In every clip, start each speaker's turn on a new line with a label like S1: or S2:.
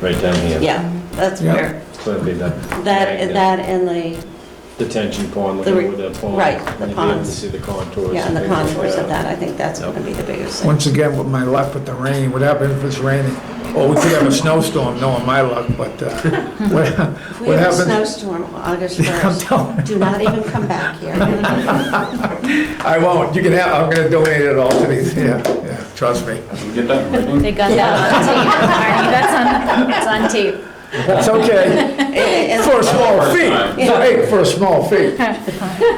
S1: right down here.
S2: Yeah, that's
S3: Yeah.
S2: where,
S1: So it'd be that.
S2: that,
S1: magnet
S2: that and the,
S1: Detention pond,
S2: the re-
S1: looking with that pond.
S2: right, the
S1: and you'd be able
S2: ponds.
S1: To see the contours.
S2: yeah, and the
S1: things like
S2: contours of that, I think that's gonna be the biggest thing.
S3: Once again, with my luck with the rain, what happened if it's raining? Or we could have a snowstorm, knowing my luck, but uh, what
S2: If we have a
S3: what happens?
S2: snowstorm August
S3: I'm
S2: 1st,
S3: telling you,
S2: do not even come back here.
S3: um, I won't, you can have, I'm gonna donate it all to these, yeah, yeah, trust me.
S4: Get that in writing?
S5: They got that on tape. Marty. That's on, it's on tape.
S3: That's okay,
S2: And
S3: for a small fee,
S2: Yeah.
S3: hey, for a small fee.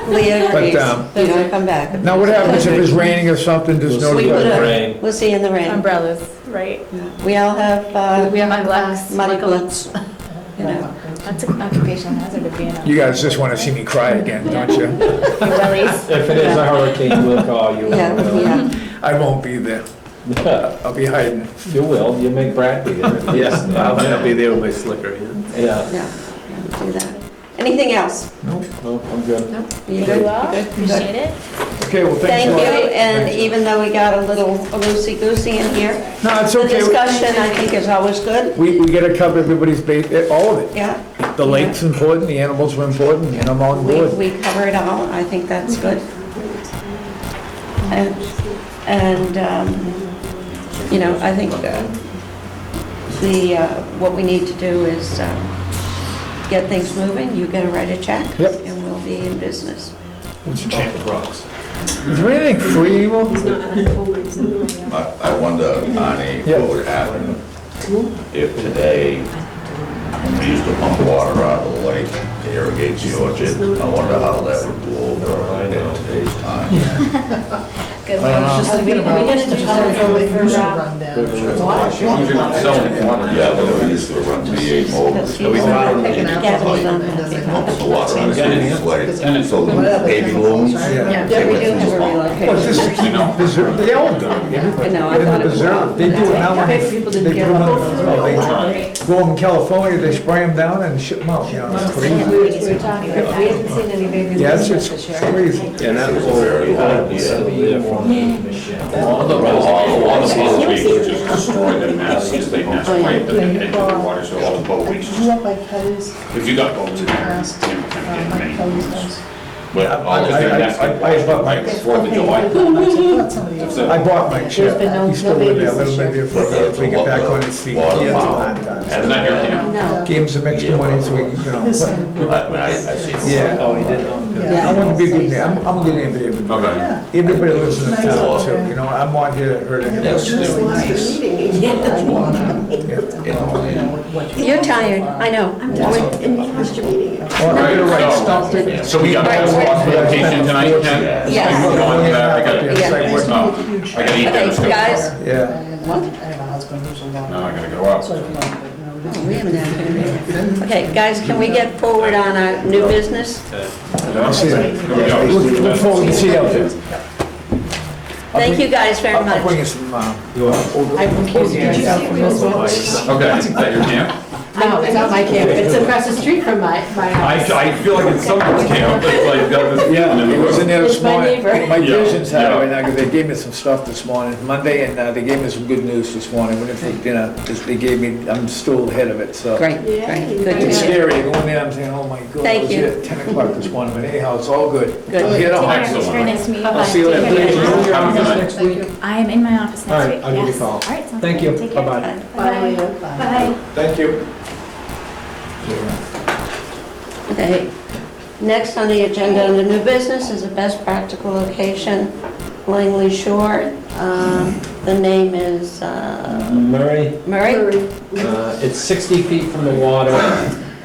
S2: Leah
S3: But,
S2: agrees,
S3: um,
S2: do not come back.
S3: Now, what happens if it's raining or something, there's no...
S1: We'll see
S2: We
S1: in the
S2: would've-
S1: rain.
S2: We'll see you in the rain.
S5: Umbrellas, right?
S2: We all have, uh,
S5: We have mud blocks.
S2: muddy boots, you know.
S5: That's an occupational hazard of being on.
S3: You guys just wanna see me cry again, don't you?
S5: Your wellies.
S1: If it is a hurricane, we'll call you. uh,
S2: Yeah, yeah.
S3: I won't be there,
S1: yeah.
S3: I'll be hiding.
S1: You will, you make Brad be there.
S6: Yes, I'll I'll be there with my slicker, yeah.
S1: Yeah,
S2: Yeah, yeah, do that. Anything else?
S1: no, I'm good.
S2: You
S5: Very
S2: good?
S5: well.
S2: You good? You good?
S5: Appreciate it.
S3: Okay, well, thanks
S2: Thank
S3: a lot.
S2: you, and
S3: Thanks.
S2: even though we got a little loosey-goosey in here,
S3: No, it's
S2: the
S3: okay.
S2: discussion, I think, is always good,
S3: We, we gotta cover everybody's base, eh, all of it.
S2: yeah.
S3: The lake's important, the animals were important, and I'm on
S2: We,
S3: board.
S2: we cover it all, I think that's good. And, and, um, you know, I think uh, the, uh, what we need to do is um, get things moving, you gotta write a check.
S3: Yep.
S2: And we'll be in business.
S3: It's a change of rocks. Is there anything free anymore?
S7: I I wonder, Connie,
S3: Yeah.
S7: what would happen if today we used to pump water out of the lake to irrigate the orchard? I wonder how that would go over in today's time.
S5: Good
S3: I don't
S5: luck.
S3: know.
S4: As long as you're not selling water.
S7: Yeah, but we used to run V8 motors.
S2: He's
S7: found it.
S2: gathering on that.
S7: Pump the water out of the
S4: And
S7: lake.
S4: it's-
S7: So baby blooms.
S2: Yeah,
S7: they
S2: we
S7: went
S2: do
S7: through
S2: have a
S7: the pump.
S3: Well, this
S2: relocation.
S3: is,
S4: You know.
S3: preserve- they all do.
S2: I know, I
S3: They're
S2: thought
S3: in
S2: it
S3: the
S2: was
S3: preserve, they do it now. and
S2: Okay, people didn't
S3: they
S2: give
S3: put 'em
S2: up.
S3: in the- Oh, they Go in California, they spray them down and ship them out, you know, it's crazy.
S8: We were talking about, we haven't seen any babies.
S3: Yes, it's crazy.
S1: And that
S7: It was
S1: whole-
S7: very hard,
S1: Yeah.
S7: yeah.
S6: Oh,
S4: All the, all the, all the boat weeks just destroy their nests, because
S2: Oh,
S4: they nest right at the edge of the water, so all the boat weeks just If you got boats in there, it's gonna get many boats. But all the
S3: I-
S4: things
S3: I-
S4: that's
S3: I- I- I bought my-
S4: like Fourth of July.
S8: It's
S3: I bought my ship,
S8: been no-
S3: he's still
S8: no
S3: with me, a
S8: babies
S3: little
S8: this
S3: bit
S8: year.
S3: if we- if we get back on his feet.
S7: Water.
S3: He has a hard time.
S4: Isn't that your camp?
S2: No,
S3: Gave him some extra money so we, can, you know,
S7: I- I, I see.
S3: yeah.
S1: Oh, he did, um,
S3: I want to be good man. I'm, I'm good at everybody.
S4: Okay.
S3: Everybody lives in the town too, you know, I'm not here to hurt
S7: That's
S3: anybody.
S7: just in the land.
S2: you're tired, I know. I'm
S3: Well, I'm gonna write stump
S4: Right,
S3: it.
S4: so, so we got that spot location tonight, Ken?
S2: Yes.
S4: Like, we're going to that, I gotta,
S3: Yeah.
S4: no, I gotta eat dinner
S2: Okay,
S4: still.
S2: guys,
S3: Yeah,
S4: No, I gotta go out.
S2: oh, we haven't had a minute. Okay, guys, can we get forward on our new business?
S3: I see that.
S4: Here we go.
S3: Look look forward to see you out there.
S2: Thank you guys very
S3: I'll bring
S2: much.
S3: you some, uh,
S4: Okay, is that your camp?
S8: No, it's not my camp, it's across the street from my, my
S4: I,
S8: house.
S4: I feel like it's someone's camp, it's like, that was.
S3: yeah, it was in there this
S8: It's my
S3: morning.
S8: neighbor.
S3: My
S4: Yeah,
S3: vision's
S4: yeah.
S3: high right now, because they gave me some stuff this morning, Monday, and uh, they gave me some good news this morning. What if they, you know, just- they gave me, I'm still ahead of it, so.
S2: Great, great, good to
S3: It's
S2: hear.
S3: scary, you go in there, I'm saying, oh my God.
S2: Thank
S3: it was
S2: you.
S3: at Ten o'clock this morning, but anyhow, it's all good.
S2: Good.
S3: Get on.
S4: Excellent.
S5: Very nice to meet you.
S3: I'll see you
S5: Take
S3: later.
S5: care.
S4: Have a good night.
S5: I am in my office next week.
S6: I'll give you a
S5: yes.
S6: call.
S5: All right, sounds
S6: Thank
S5: good.
S6: you.
S5: Take care.
S6: Bye-bye.
S8: Bye.
S5: Bye.
S4: Oh,
S5: Bye.
S6: Thank you.
S2: Okay. Next on the agenda under new business is the best practical location, Langley Shore. Um, The name is uh,
S1: Murray,
S2: Murray?
S1: uh, it's 60 feet from the water,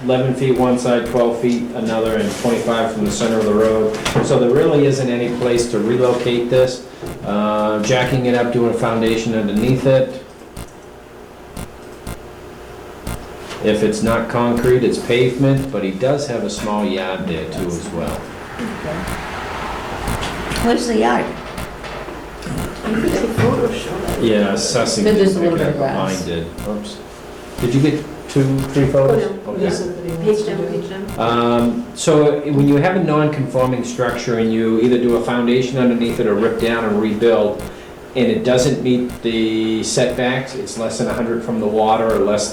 S1: 11 feet one side, 12 feet another, and 25 from the center of the road. So there really isn't any place to relocate this. Uh, Jacking it up, doing a foundation underneath it. If it's not concrete, it's pavement, but he does have a small yard there too as well.
S2: Where's the yard?
S1: Yeah, assessing.
S8: But there's
S1: Uh,
S8: a
S1: didn't
S8: little bit
S1: pick
S8: of
S1: up, mine
S8: grass. Oh,
S1: did. Oops. Did you get two, three photos? Okay.
S8: Page down, page down.
S1: Um, So when you have a non-conforming structure and you either do a foundation underneath it or rip down and rebuild, and it doesn't meet the setbacks, it's less than 100 from the water or less